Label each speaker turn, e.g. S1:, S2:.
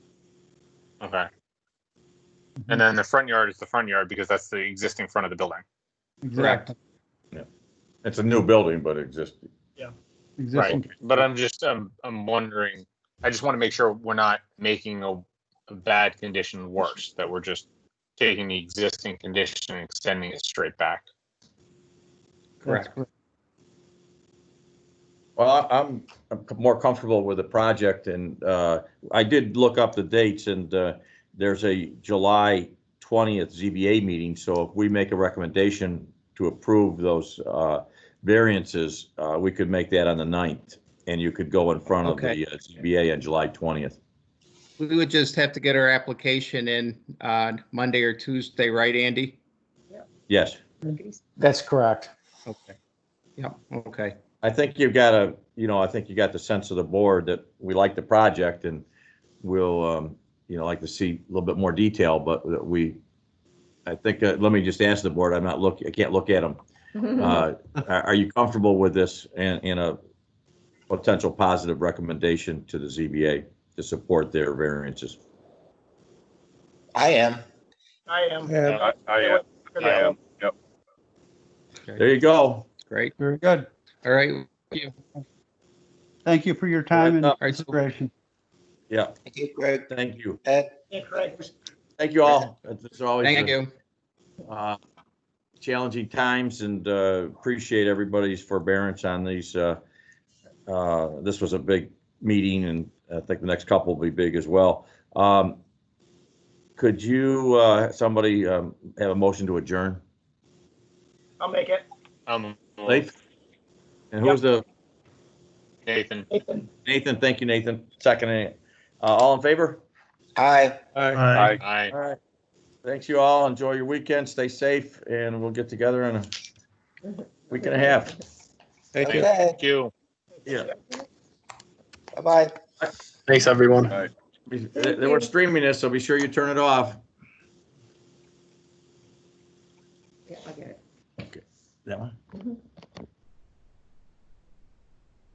S1: Okay. And then the front yard is the front yard because that's the existing front of the building.
S2: Exactly.
S3: It's a new building, but existing.
S1: Right.
S2: Existing,
S1: But I'm just, I'm, I'm wondering, I just want to make sure we're not making a, a bad condition worse, that we're just taking the existing condition and extending it straight back.
S2: that's correct.
S3: Well, I- I'm, I'm more comfortable with the project and, uh, I did look up the dates and, uh, there's a July 20th ZBA meeting, so if we make a recommendation to approve those, uh, variances, uh, we could make that on the 9th and you could go in front of
S4: Okay.
S3: the uh, ZBA on July 20th.
S4: We would just have to get our application in on Monday or Tuesday, right, Andy?
S3: Yes.
S2: That's correct.
S4: Okay. Yeah, okay.
S3: I think you've got a, you know, I think you got the sense of the board that we like the project and we'll, um, you know, like to see a little bit more detail, but that we, I think, uh, let me just ask the board, I'm not look, I can't look at them. Uh, are, are you comfortable with this and, and a potential positive recommendation to the ZBA to support their variances?
S5: I am.
S6: I am.
S7: I, I am, I am.
S3: There you go.
S4: Great.
S2: Very good.
S4: All right.
S2: Thank you for your time and
S3: All
S4: right, so-
S2: consideration.
S3: Yeah,
S5: Thank you, Greg.
S3: thank you.
S5: Ed,
S6: Yeah, correct.
S3: Thank you all. It's always
S4: Thank
S3: a-
S4: you.
S3: uh, challenging times and uh, appreciate everybody's forbearance on these. uh, uh, This was a big meeting and I think the next couple will be big as well. Um, Could you, uh, somebody um, have a motion to adjourn?
S6: I'll make it.
S1: Um,
S3: Lathan? And who's the,
S1: Nathan,
S6: Nathan.
S3: Nathan, thank you, Nathan, seconding it. Uh, All in favor?
S5: hi.
S7: I,
S1: I.
S3: All right. Thanks you all. Enjoy your weekend. Stay safe and we'll get together in a week and a half.
S4: Thank you.
S5: Okay.
S1: Thank you.
S3: Yeah.
S5: Bye-bye.
S8: Thanks, everyone.
S3: Be- They they were streaming this, so be sure you turn it off.
S9: Yeah, I get it.
S3: That one?
S9: Mhm.